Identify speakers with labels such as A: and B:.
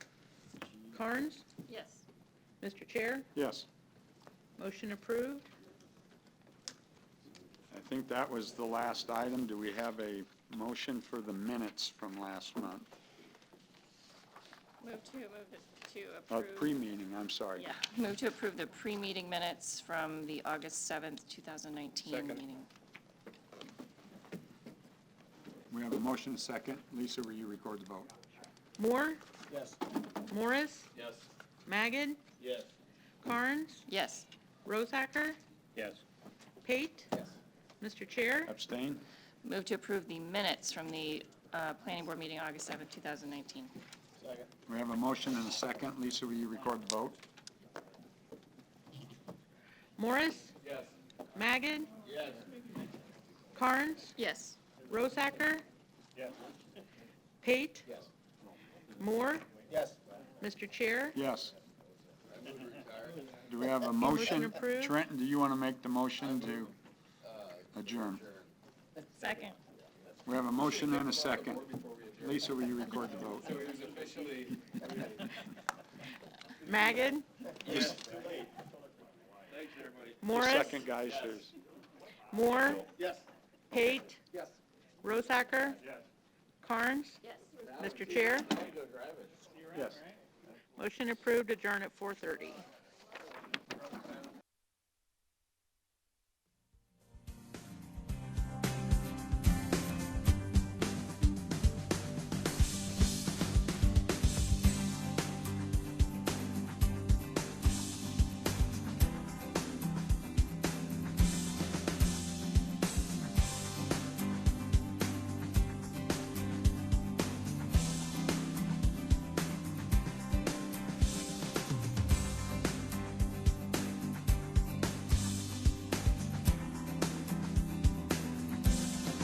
A: Carnes?
B: Yes.
A: Mr. Chair,
C: Yes,
A: motion approved.
C: I think that was the last item. Do we have a motion for the minutes from last month?
B: Move to, move it to
C: Uh,
B: approve.
C: pre-meeting, I'm sorry.
B: Yeah, move to approve the pre-meeting minutes from the August 7th, 2019 meeting.
C: We have a motion second. Lisa, will you record the vote?
A: Moore,
D: Yes.
A: Morris,
D: Yes.
A: Magid,
D: Yes.
A: Carnes,
B: Yes.
A: Rosacker,
D: Yes.
A: Pate.
D: Yes.
A: Mr. Chair,
C: Abstain?
B: Move to approve the minutes from the uh, planning board meeting August 7th, 2019.
D: Second.
C: We have a motion and a second. Lisa, will you record the vote?
A: Morris,
D: Yes.
A: Magid,
D: Yes.
A: Carnes,
B: Yes.
A: Rosacker,
D: Yes.
A: Pate,
D: Yes.
A: Moore,
D: Yes.
A: Mr. Chair,
C: Yes. Do we have a
A: Motion
C: motion?
A: approved.
C: Trenton, do you want to make the motion to adjourn?
B: Second.
C: We have a motion and a second. Lisa, will you record the vote?
A: Magid, Morris,
C: Second, guys, there's-
A: Moore,
D: Yes.
A: Pate,
D: Yes.
A: Rosacker, Carnes,
B: Yes.
A: Mr. Chair,
D: I go drive it.
C: yes.
A: motion approved, adjourn at 4:30.